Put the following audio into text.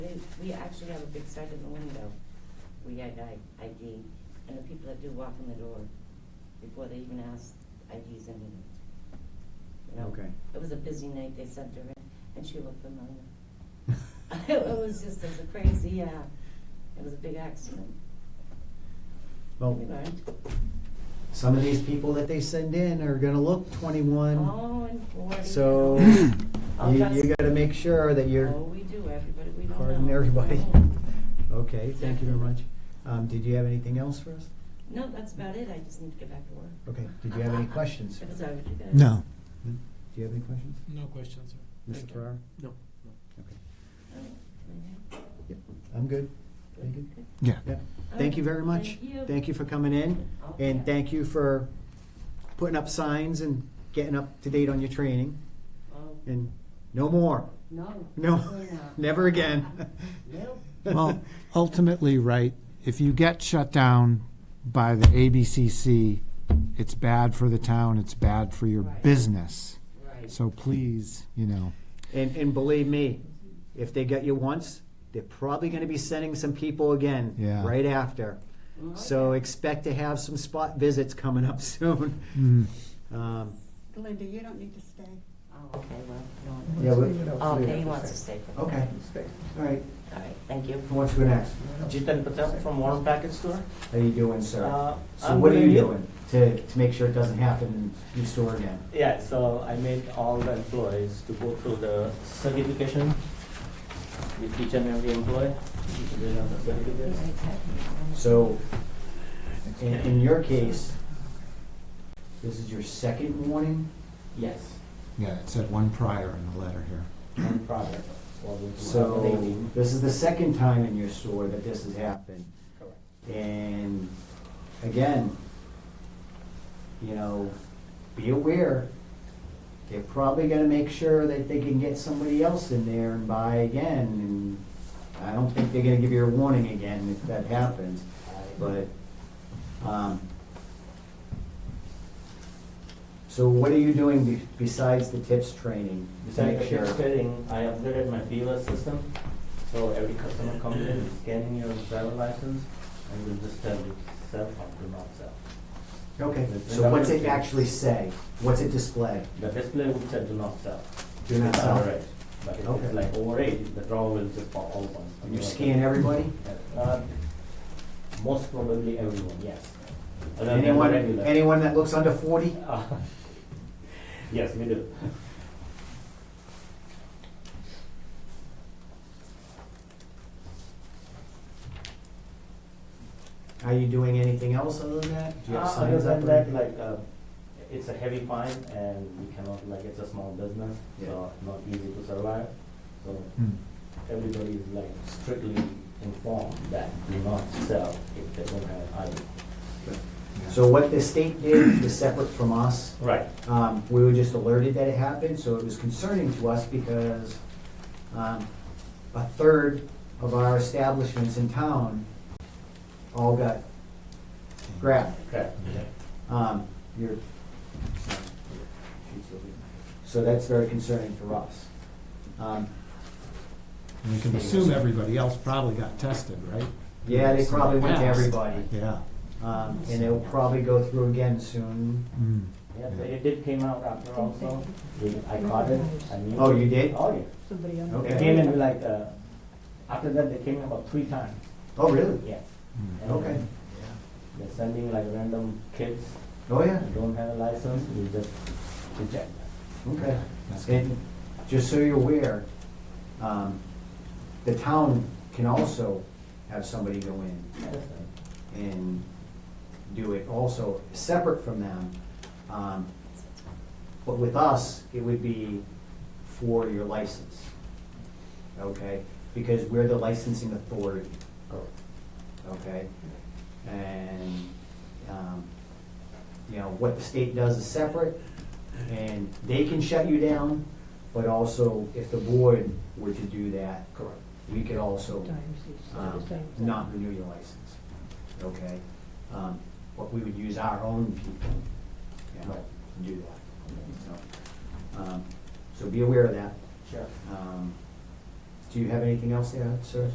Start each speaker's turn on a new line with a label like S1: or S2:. S1: we actually have a big sign in the window. We had I- ID, and the people that do walk in the door, before they even ask, IDs in it. You know?
S2: Okay.
S1: It was a busy night, they sent her in, and she looked familiar. It was just, it was a crazy, uh, it was a big accident. We
S2: Well,
S1: learned.
S2: some of these people that they send in are gonna look twenty-one,
S1: Oh, and forty.
S2: so
S1: you know.
S2: you,
S1: All
S2: you gotta make sure that you're.
S1: Oh, we do, everybody, we don't know.
S2: Pardon everybody.
S1: Oh.
S2: Okay, thank you very much. Um, did you have anything else for us?
S1: No, that's about it, I just need to get back to work.
S2: Okay, did you have any questions?
S1: It was over to you guys.
S3: No.
S2: Do you have any questions?
S4: No questions, sir.
S2: Mr. Farrar?
S4: No.
S2: Okay.
S1: Oh, okay.
S2: Yep, I'm good. Thank you.
S1: Good.
S3: Yeah.
S2: Yep.
S1: All
S2: Thank you
S1: right,
S2: very much.
S1: Oh, thank you.
S2: Thank you for coming in,
S1: Okay.
S2: and thank you for putting up signs and getting up to date on your training,
S1: Oh,
S2: and no more.
S1: No.
S2: No,
S1: definitely not.
S2: never again.
S1: Oh, Nope.
S3: Well, ultimately, right, if you get shut down by the ABCC, it's bad for the town, it's bad for your
S1: Right.
S3: business.
S1: Right.
S3: So please, you know,
S2: And, and believe me, if they get you once, they're probably gonna be sending some people again.
S3: Yeah.
S2: Right after.
S1: Mm,
S2: So
S1: okay.
S2: expect to have some spot visits coming up soon.
S3: mm,
S2: Um,
S5: Linda, you don't need to stay.
S1: Oh, okay, well,
S2: Yeah,
S1: no.
S2: we-
S1: Oh, okay, he wants to stay for the
S2: Okay,
S1: night.
S2: all right.
S1: All right, thank you.
S2: Who wants to go next?
S6: Jitin Patel from Warren Package Store.
S2: How you doing, sir?
S6: Uh,
S2: So
S6: I'm
S2: what are you
S6: doing it.
S2: doing to, to make sure it doesn't happen in your store again?
S6: Yeah, so I made all the employees to go through the certification with each and every employee. They have the certificates.
S2: So, in, in your case, this is your second warning
S6: Yes,
S3: yeah, it said one prior in the letter here.
S6: on product. Well, we do have
S2: So,
S6: labeling.
S2: this is the second time in your store that this has happened.
S6: Correct.
S2: And again, you know, be aware, they're probably gonna make sure that they can get somebody else in there and buy again. And I don't think they're gonna give you a warning again if that happens, but, um, so what are you doing be- besides the tips training? to
S6: Besides the
S2: make sure-
S6: chip setting, I upgraded my POS system. So every customer comes in, scanning your driver license, and will just tell you sell or do not sell.
S2: Okay, so what's it actually say? What's it display?
S6: The display would say do not sell.
S2: Do not
S6: It's
S2: sell.
S6: overage, But if
S2: Okay.
S6: it's like over eight, the draw will just pop open.
S2: And you scan everybody?
S6: Uh, Most probably everyone, yes. Other than the
S2: Anyone,
S6: regular.
S2: anyone that looks under forty?
S6: Uh, Yes, we do.
S2: Are you doing anything else other than that? Do you have
S6: Uh, Other
S2: signs up
S6: than
S2: or
S6: that,
S2: anything?
S6: like, uh, it's a heavy fine and we cannot, like, it's a small business, so not easy to survive. So
S2: Mm-hmm.
S3: Mm.
S6: everybody is like strictly informed that do not sell if they don't have ID.
S2: So what the state did is separate from us.
S6: Right.
S2: Um, we were just alerted that it happened, so it was concerning to us because, um, a third of our establishments in town all got grabbed.
S6: Correct.
S2: Um, you're, so that's very concerning for us. Um,
S3: We can assume everybody else probably got tested, right?
S2: yeah, they probably went to
S3: Passed.
S2: everybody,
S3: Yeah.
S2: um, and they'll probably go through again soon.
S3: Mm.
S6: Yeah, but it did came out after also. We- I caught it, I knew.
S2: Oh, you did?
S6: Oh, yeah.
S5: Somebody else.
S6: They
S2: Okay.
S6: came in like, uh, after that, they came in about three times.
S2: Oh, really?
S6: Yeah.
S3: Mm.
S6: And
S2: Okay.
S6: They're sending like random kids
S2: Oh, yeah,
S6: who don't have a license, we just reject them.
S2: okay.
S3: That's good.
S2: And just so you're aware, um, the town can also have somebody go in and do it also separate from them. Um, But with us, it would be for your license, okay? Because we're the licensing authority, okay? And, um, you know, what the state does is separate, and they can shut you down, but also if the board were to do that,
S6: Correct.
S2: we could also
S5: Times is-
S2: um,
S5: times is-
S2: not renew your license, okay? Um, But we would use our own people, you know, to do that. So, um, So be aware of that.
S6: Sure.
S2: Um, Do you have anything else there, sir?